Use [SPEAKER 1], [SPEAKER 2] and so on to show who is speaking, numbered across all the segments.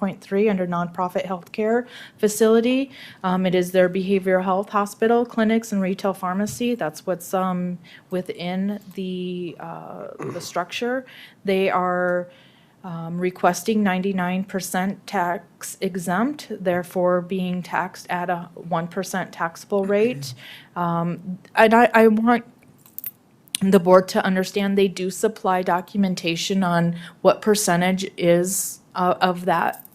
[SPEAKER 1] 9.3 under nonprofit healthcare facility. Um, It is their behavioral health hospital, clinics, and retail pharmacy. That's what's um, within the, uh, the structure. They are um, requesting 99% tax exempt, therefore being taxed at a 1% taxable rate. Um, And I, I want the board to understand they do supply documentation on what percentage is uh, of that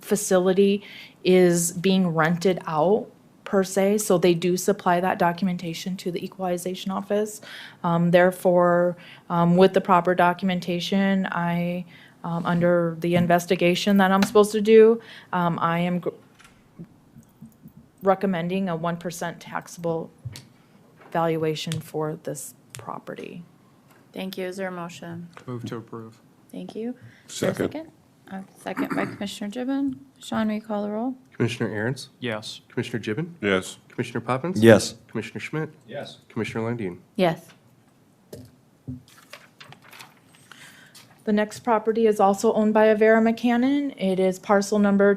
[SPEAKER 1] facility is being rented out per se. So they do supply that documentation to the equalization office. Um, Therefore, um, with the proper documentation, I, um, under the investigation that I'm supposed to do, um, I am gr- recommending a 1% taxable valuation for this property.
[SPEAKER 2] Thank you. Is there a motion?
[SPEAKER 3] Move to approve.
[SPEAKER 2] Thank you. Is there a
[SPEAKER 4] Second.
[SPEAKER 2] A second by Commissioner Gibbon. Sean, will you call the roll?
[SPEAKER 5] Commissioner Aaron's,
[SPEAKER 3] Yes.
[SPEAKER 5] Commissioner Gibbon,
[SPEAKER 4] Yes.
[SPEAKER 5] Commissioner Poppins.
[SPEAKER 4] Yes.
[SPEAKER 5] Commissioner Schmidt,
[SPEAKER 4] Yes.
[SPEAKER 5] Commissioner Landine.
[SPEAKER 2] Yes.
[SPEAKER 1] The next property is also owned by Avera McCannon. It is parcel number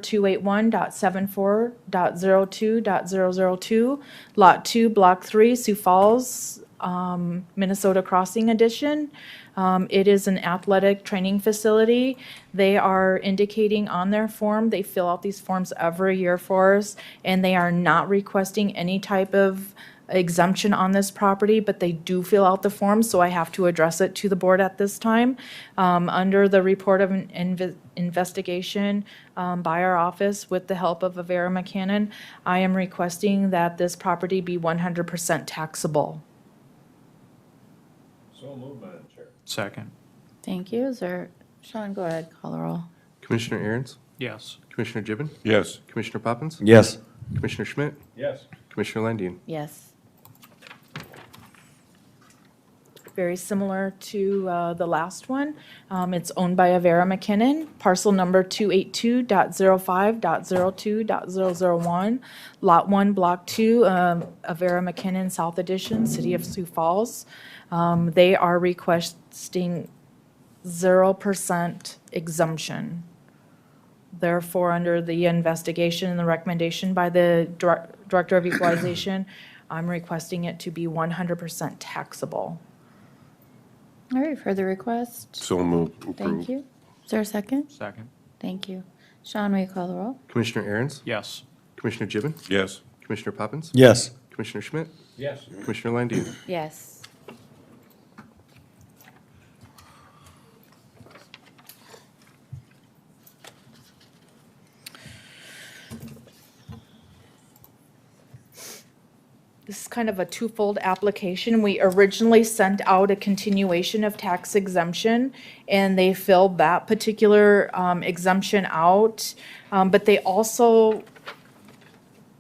[SPEAKER 1] 281.74.02.002, Lot 2, Block 3, Sioux Falls, um, Minnesota Crossing Edition. Um, It is an athletic training facility. They are indicating on their form, they fill out these forms every year for us, and they are not requesting any type of exemption on this property, but they do fill out the form, so I have to address it to the board at this time. Um, Under the report of an inve- investigation um, by our office with the help of Avera McCannon, I am requesting that this property be 100% taxable.
[SPEAKER 3] Second.
[SPEAKER 2] Thank you. Is there, Sean, go ahead, call the roll.
[SPEAKER 5] Commissioner Aaron's,
[SPEAKER 3] Yes.
[SPEAKER 5] Commissioner Gibbon,
[SPEAKER 4] Yes.
[SPEAKER 5] Commissioner Poppins,
[SPEAKER 4] Yes.
[SPEAKER 5] Commissioner Schmidt,
[SPEAKER 4] Yes.
[SPEAKER 5] Commissioner Landine.
[SPEAKER 2] Yes.
[SPEAKER 1] very similar to uh, the last one. Um, It's owned by Avera McKinnon, parcel number 282.05.02.001, Lot 1, Block 2, um, Avera McKinnon South Edition, City of Sioux Falls. Um, They are requesting 0% exemption. Therefore, under the investigation and the recommendation by the Dir- Director of Equalization, I'm requesting it to be 100% taxable.
[SPEAKER 2] All right, further request?
[SPEAKER 4] So moved.
[SPEAKER 2] Thank you. Is there a second?
[SPEAKER 3] Second.
[SPEAKER 2] Thank you. Sean, will you call the roll?
[SPEAKER 5] Commissioner Aaron's,
[SPEAKER 3] Yes.
[SPEAKER 5] Commissioner Gibbon,
[SPEAKER 4] Yes.
[SPEAKER 5] Commissioner Poppins,
[SPEAKER 4] Yes.
[SPEAKER 5] Commissioner Schmidt,
[SPEAKER 4] Yes.
[SPEAKER 5] Commissioner Landine.
[SPEAKER 2] Yes.
[SPEAKER 1] This is kind of a twofold application. We originally sent out a continuation of tax exemption, and they filled that particular um, exemption out. Um, But they also,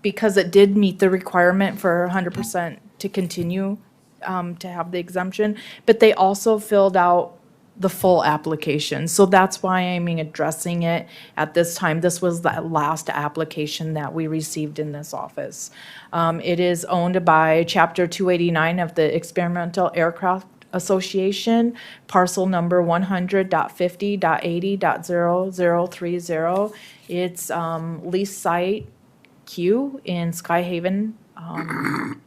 [SPEAKER 1] because it did meet the requirement for 100% to continue um, to have the exemption, but they also filled out the full application. So that's why I'm addressing it at this time. This was the last application that we received in this office. Um, It is owned by Chapter 289 of the Experimental Aircraft Association, parcel number 100.50.80.0030. It's um, lease site Q in Sky Haven, um,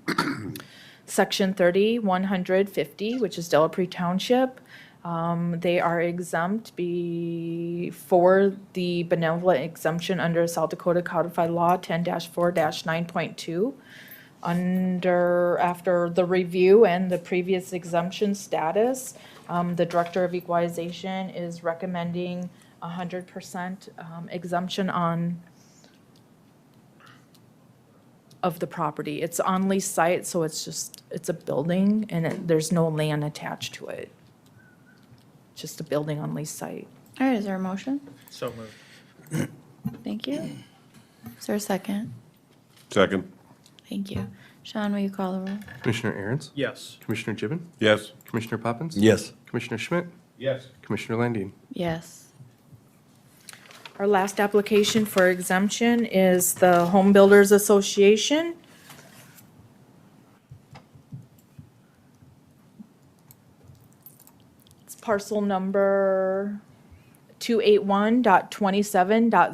[SPEAKER 1] Section 30, 150, which is Delapre Township. Um, They are exempt be- for the benevolent exemption under South Dakota Codified Law 10-4-9.2. Under, after the review and the previous exemption status, um, the Director of Equalization is recommending 100% um, exemption on of the property. It's on lease site, so it's just, it's a building and it- there's no land attached to it. Just a building on lease site.
[SPEAKER 2] All right, is there a motion?
[SPEAKER 3] So moved.
[SPEAKER 2] Thank you. Is there a second?
[SPEAKER 4] Second.
[SPEAKER 2] Thank you. Sean, will you call the roll?
[SPEAKER 5] Commissioner Aaron's,
[SPEAKER 3] Yes.
[SPEAKER 5] Commissioner Gibbon,
[SPEAKER 4] Yes.
[SPEAKER 5] Commissioner Poppins.
[SPEAKER 4] Yes.
[SPEAKER 5] Commissioner Schmidt,
[SPEAKER 4] Yes.
[SPEAKER 5] Commissioner Landine.
[SPEAKER 2] Yes.
[SPEAKER 1] Our last application for exemption is the Home Builders Association. It's parcel number 281.27.0.